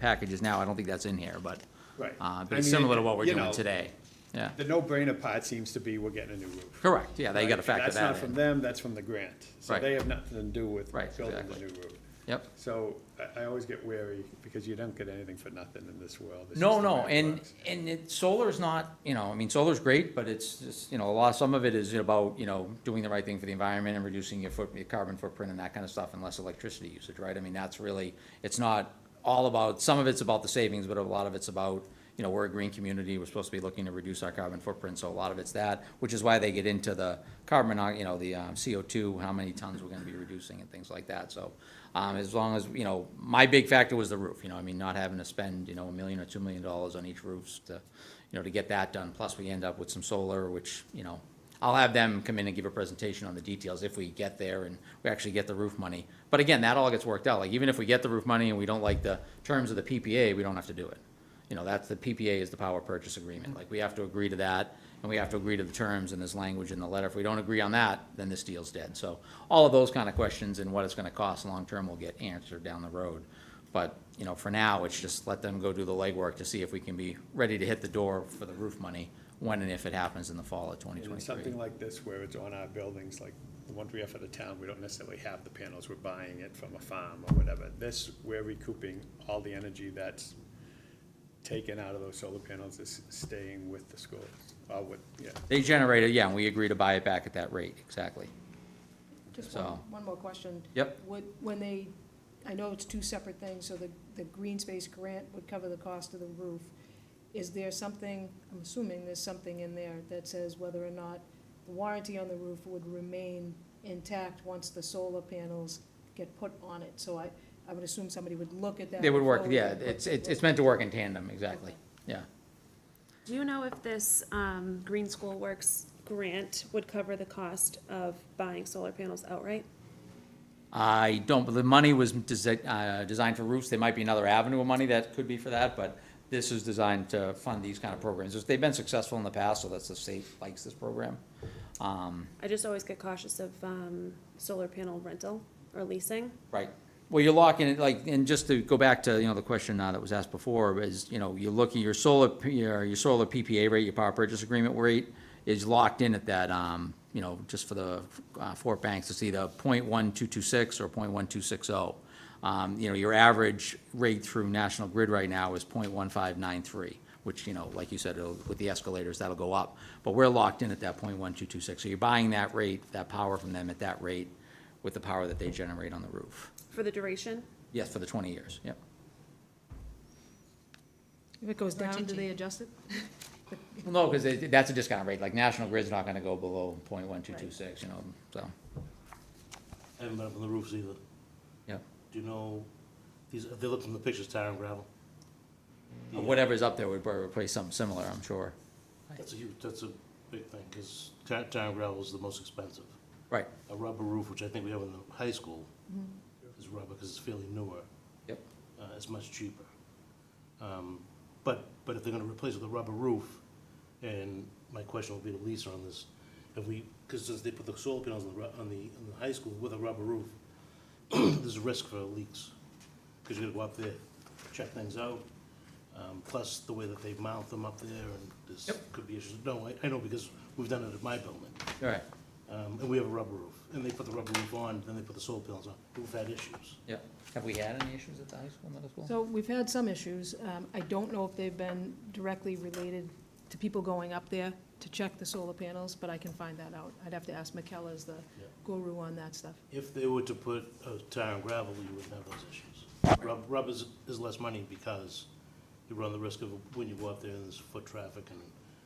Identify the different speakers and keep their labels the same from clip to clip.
Speaker 1: packages now, I don't think that's in here, but,
Speaker 2: Right.
Speaker 1: uh,
Speaker 2: I
Speaker 1: but it's
Speaker 2: mean,
Speaker 1: similar to what we're
Speaker 2: you
Speaker 1: doing
Speaker 2: know,
Speaker 1: today. Yeah,
Speaker 2: The no-brainer part seems to be we're getting a new roof.
Speaker 1: correct, yeah, they gotta
Speaker 2: Right?
Speaker 1: factor
Speaker 2: That's not
Speaker 1: that
Speaker 2: from
Speaker 1: in.
Speaker 2: them, that's from the grant. So
Speaker 1: Right.
Speaker 2: they have nothing to do with
Speaker 1: Right,
Speaker 2: building the
Speaker 1: exactly.
Speaker 2: new roof.
Speaker 1: Yep.
Speaker 2: So I, I always get wary because you don't get anything for nothing in this world. It's
Speaker 1: No,
Speaker 2: just the
Speaker 1: no,
Speaker 2: way it
Speaker 1: and,
Speaker 2: works.
Speaker 1: and it, solar's not, you know, I mean, solar's great, but it's just, you know, a lot, some of it is about, you know, doing the right thing for the environment and reducing your foot, your carbon footprint and that kind of stuff, and less electricity usage, right? I mean, that's really, it's not all about, some of it's about the savings, but a lot of it's about, you know, we're a green community, we're supposed to be looking to reduce our carbon footprint, so a lot of it's that, which is why they get into the carbon, uh, you know, the, um, CO two, how many tons we're gonna be reducing and things like that, so. Um, as long as, you know, my big factor was the roof, you know, I mean, not having to spend, you know, a million or two million dollars on each roofs to, you know, to get that done, plus we end up with some solar, which, you know, I'll have them come in and give a presentation on the details if we get there and we actually get the roof money. But again, that all gets worked out, like even if we get the roof money and we don't like the terms of the PPA, we don't have to do it. You know, that's, the PPA is the power purchase agreement, like we have to agree to that and we have to agree to the terms and there's language in the letter. If we don't agree on that, then this deal's dead. So all of those kind of questions and what it's gonna cost long-term will get answered down the road. But, you know, for now, it's just let them go do the legwork to see if we can be ready to hit the door for the roof money when and if it happens in the fall of twenty
Speaker 2: And in something
Speaker 1: twenty-three.
Speaker 2: like this where it's on our buildings, like the ones we have for the town, we don't necessarily have the panels, we're buying it from a farm or whatever. This, we're recouping all the energy that's taken out of those solar panels is staying with the schools, uh, with, yeah.
Speaker 1: They generate it, yeah, and we agree to buy it back at that rate, exactly.
Speaker 3: Just
Speaker 1: So-
Speaker 3: one, one more question.
Speaker 1: Yep.
Speaker 3: Would, when they, I know it's two separate things, so the, the green space grant would cover the cost of the roof. Is there something, I'm assuming there's something in there that says whether or not the warranty on the roof would remain intact once the solar panels get put on it? So I, I would assume somebody would look at that.
Speaker 1: They would work,
Speaker 3: before we
Speaker 1: yeah,
Speaker 3: put
Speaker 1: it's,
Speaker 3: the
Speaker 1: it's, it's
Speaker 3: roof.
Speaker 1: meant to work in tandem, exactly, yeah.
Speaker 4: Do you know if this um, Green School Works grant would cover the cost of buying solar panels outright?
Speaker 1: I don't, but the money was desi- uh, designed for roofs, there might be another avenue of money that could be for that, but this is designed to fund these kind of programs. They've been successful in the past, so that's the state likes this program. Um,
Speaker 4: I just always get cautious of um, solar panel rental or leasing.
Speaker 1: Right. Well, you're locking it, like, and just to go back to, you know, the question uh, that was asked before, is, you know, you're looking, your solar, P- your, your solar PPA rate, your power purchase agreement rate is locked in at that, um, you know, just for the, uh, Fort Banks, it's either point one two two six or point one two six oh. Um, you know, your average rate through National Grid right now is point one five nine three, which, you know, like you said, it'll- with the escalators, that'll go up. But we're locked in at that point one two two six, so you're buying that rate, that power from them at that rate with the power that they generate on the roof.
Speaker 4: For the duration?
Speaker 1: Yes, for the twenty years, yep.
Speaker 3: If it goes down, do they adjust it?
Speaker 1: Well, no, because that's a discount rate, like National Grid's not gonna go below point one two two six, you know, so,
Speaker 5: I haven't been up on the roofs either.
Speaker 1: yep.
Speaker 5: Do you know, these, they look from the pictures, tire and gravel? Yeah.
Speaker 1: Whatever's up there would probably replace something similar, I'm sure.
Speaker 5: That's a huge, that's a big thing, because tire, tire and gravel is the most expensive.
Speaker 1: Right,
Speaker 5: A rubber roof, which I think we have in the high school, is rubber, because it's fairly newer,
Speaker 1: yep,
Speaker 5: uh, it's much cheaper. Um, But, but if they're gonna replace it with a rubber roof, and my question will be to Lisa on this, if we, because since they put the solar panels on the, ru- on the, on the high school with a rubber roof, there's a risk for leaks, because you gotta go up there, check things out, um, plus the way that they mount them up there, and there's,
Speaker 1: Yep.
Speaker 5: could be issues. No, I, I know, because we've done it at my building,
Speaker 1: all right,
Speaker 5: um, and we have a rubber roof, and they put the rubber roof on, then they put the solar panels on, we've had issues.
Speaker 1: yep. Have we had any issues at the high school, middle school?
Speaker 3: So we've had some issues. Um, I don't know if they've been directly related to people going up there to check the solar panels, but I can find that out. I'd have to ask Michaela as the guru on that stuff.
Speaker 5: If they were to put uh, tire and gravel, you wouldn't have those issues. Rub- Rubber is, is less money because you run the risk of, when you go up there, there's foot traffic and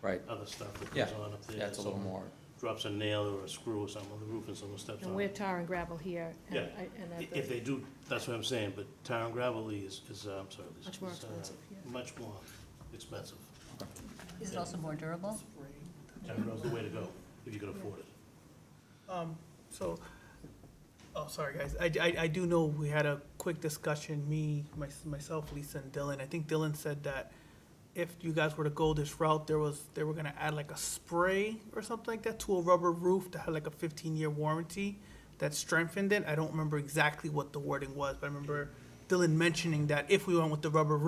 Speaker 1: Right,
Speaker 5: other stuff that
Speaker 1: yeah,
Speaker 5: goes on up there.
Speaker 1: yeah, it's a little
Speaker 5: Someone
Speaker 1: more,
Speaker 5: Drops a nail or a screw or something on the roof and someone steps
Speaker 3: And
Speaker 5: on
Speaker 3: we're
Speaker 5: it.
Speaker 3: tar and gravel here. and
Speaker 5: Yeah.
Speaker 3: I- and
Speaker 5: I-
Speaker 3: at the-
Speaker 5: If they do, that's what I'm saying, but tire and gravel is, is, uh, I'm sorry. is-
Speaker 3: Much more
Speaker 5: is, uh,
Speaker 3: expensive, yeah.
Speaker 5: Much more expensive.
Speaker 6: Is it also more durable?
Speaker 5: Tire and gravel's the way to go, if you can afford it.
Speaker 6: So, oh, sorry, guys. I, I, I do know we had a quick discussion, me, my- myself, Lisa and Dylan. I think Dylan said that if you guys were to go this route, there was, they were gonna add like a spray or something like that to a rubber roof that had like a fifteen-year warranty that strengthened it. I don't remember exactly what the wording was, but I remember Dylan mentioning that if we went with the rubber roof.